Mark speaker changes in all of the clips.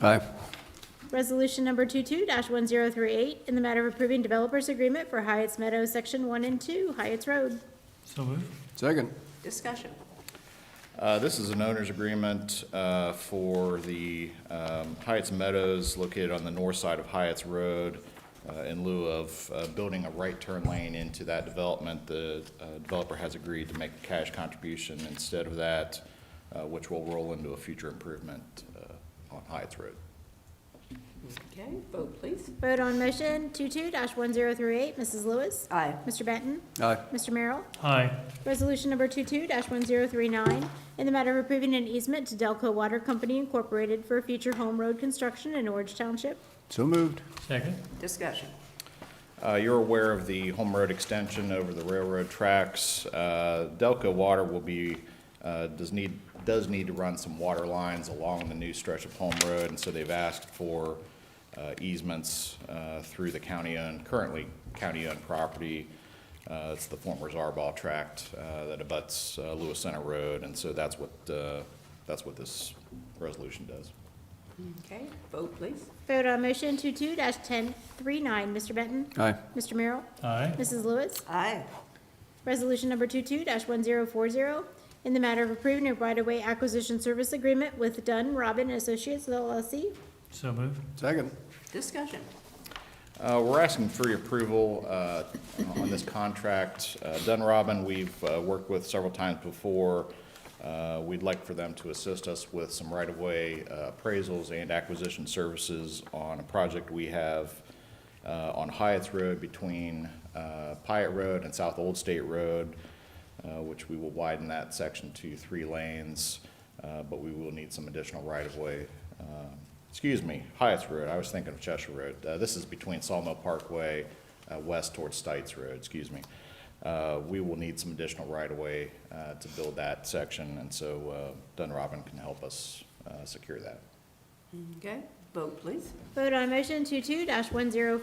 Speaker 1: Aye.
Speaker 2: Resolution number 22-1038, in the matter of approving developers agreement for Hyatt's Meadows Section 1 and 2, Hyatt's Road.
Speaker 3: So moved.
Speaker 1: Second.
Speaker 4: Discussion.
Speaker 5: Uh, This is an owner's agreement uh, for the um, Hyatt's Meadows located on the north side of Hyatt's Road. uh, In lieu of uh, building a right turn lane into that development, the uh, developer has agreed to make a cash contribution instead of that, uh, which will roll into a future improvement uh, on Hyatt's Road.
Speaker 4: Okay, vote please.
Speaker 2: Vote on motion 22-1038, Mrs. Lewis.
Speaker 4: Aye.
Speaker 2: Mr. Benton.
Speaker 1: Aye.
Speaker 2: Mr. Merrill.
Speaker 3: Aye.
Speaker 2: Resolution number 22-1039, in the matter of approving an easement to Delco Water Company Incorporated for future home road construction in Orange Township.
Speaker 1: So moved.
Speaker 3: Second.
Speaker 4: Discussion.
Speaker 5: Uh, You're aware of the home road extension over the railroad tracks. Uh, Delco Water will be, uh, does need, does need to run some water lines along the new stretch of home road, and so they've asked for uh, easements uh, through the county-owned, currently county-owned property. Uh, It's the former Zarball tract uh, that abuts uh, Lewis Center Road, and so that's what, uh, that's what this resolution does.
Speaker 4: Okay, vote please.
Speaker 2: Vote on motion 22-1039, Mr. Benton.
Speaker 1: Aye.
Speaker 2: Mr. Merrill.
Speaker 3: Aye.
Speaker 2: Mrs. Lewis.
Speaker 4: Aye.
Speaker 2: Resolution number 22-1040, in the matter of approving a right-of-way acquisition service agreement with Dunn Robin Associates LLC.
Speaker 3: So moved.
Speaker 1: Second.
Speaker 4: Discussion.
Speaker 5: Uh, We're asking for your approval uh, on this contract. Uh, Dunrobin, we've uh, worked with several times before. Uh, We'd like for them to assist us with some right-of-way uh, appraisals and acquisition services on a project we have uh, on Hyatt's Road between uh, Pyatt Road and South Old State Road, uh, which we will widen that section to three lanes, uh, but we will need some additional right-of-way uh, excuse me, Hyatt's Road, I was thinking of Cheshire Road. Uh, This is between Sawmill Parkway, uh, west towards Stites Road, excuse me. Uh, We will need some additional right-of-way uh, to build that section, and so uh, Dunrobin can help us uh, secure that.
Speaker 4: Okay, vote please.
Speaker 2: Vote on motion 22-1040,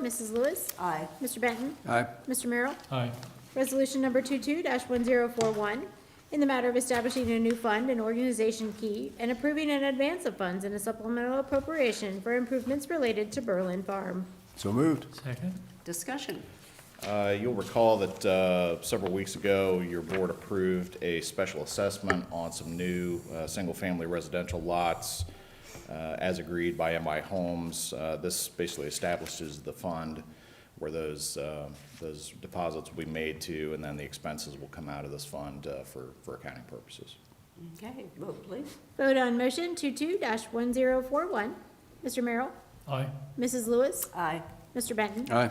Speaker 2: Mrs. Lewis.
Speaker 4: Aye.
Speaker 2: Mr. Benton.
Speaker 1: Aye.
Speaker 2: Mr. Merrill.
Speaker 3: Aye.
Speaker 2: Resolution number 22-1041, in the matter of establishing a new fund and organization key and approving an advance of funds in a supplemental appropriation for improvements related to Berlin Farm.
Speaker 1: So moved.
Speaker 3: Second.
Speaker 4: Discussion.
Speaker 5: Uh, You'll recall that uh, several weeks ago, your board approved a special assessment on some new uh, single-family residential lots uh, as agreed by MI Homes. Uh, This basically establishes the fund where those, uh, those deposits will be made to, and then the expenses will come out of this fund uh, for, for accounting purposes.
Speaker 4: Okay, vote please.
Speaker 2: Vote on motion 22-1041, Mr. Merrill.
Speaker 3: Aye.
Speaker 2: Mrs. Lewis.
Speaker 4: Aye.
Speaker 2: Mr. Benton.
Speaker 1: Aye.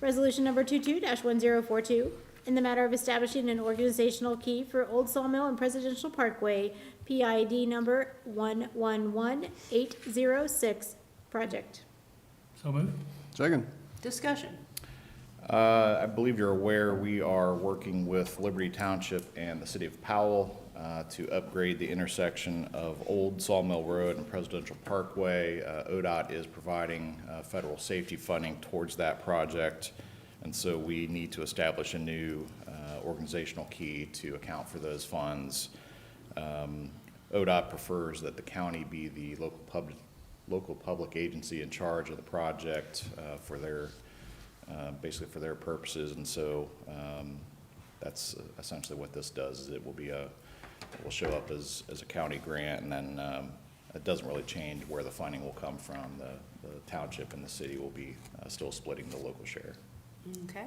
Speaker 2: Resolution number 22-1042, in the matter of establishing an organizational key for Old Sawmill and Presidential Parkway, PID number 111806 project.
Speaker 3: So moved.
Speaker 1: Second.
Speaker 4: Discussion.
Speaker 5: Uh, I believe you're aware, we are working with Liberty Township and the City of Powell uh, to upgrade the intersection of Old Sawmill Road and Presidential Parkway. Uh, ODOT is providing uh, federal safety funding towards that project, and so we need to establish a new uh, organizational key to account for those funds. Um, ODOT prefers that the county be the local pub, local public agency in charge of the project uh, for their, uh, basically for their purposes, and so um, that's essentially what this does, is it will be a, it will show up as, as a county grant, and then um, it doesn't really change where the funding will come from. The the township and the city will be uh, still splitting the local share.
Speaker 4: Okay.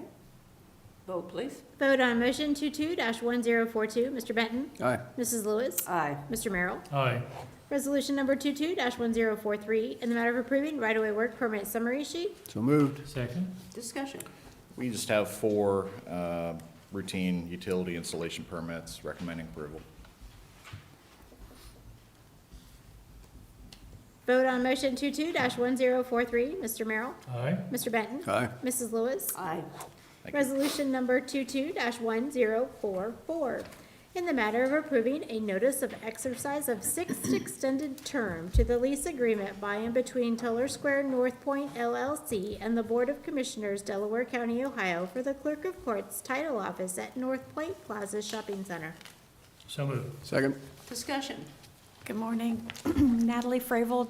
Speaker 4: Vote please.
Speaker 2: Vote on motion 22-1042, Mr. Benton.
Speaker 1: Aye.
Speaker 2: Mrs. Lewis.
Speaker 4: Aye.
Speaker 2: Mr. Merrill.
Speaker 3: Aye.
Speaker 2: Resolution number 22-1043, in the matter of approving right-of-way work permit summary sheet.
Speaker 1: So moved.
Speaker 3: Second.
Speaker 4: Discussion.
Speaker 5: We just have four uh, routine utility installation permits recommending approval.
Speaker 2: Vote on motion 22-1043, Mr. Merrill.
Speaker 3: Aye.
Speaker 2: Mr. Benton.
Speaker 1: Aye.
Speaker 2: Mrs. Lewis.
Speaker 4: Aye.
Speaker 5: Thank you.
Speaker 2: Resolution number 22-1044, in the matter of approving a notice of exercise of sixth extended term to the lease agreement by and between Tuller Square North Point LLC and the Board of Commissioners, Delaware County, Ohio, for the Clerk of Courts Title Office at North Point Plaza Shopping Center.
Speaker 3: So moved.
Speaker 1: Second.
Speaker 4: Discussion.
Speaker 6: Good morning. Natalie Fravel,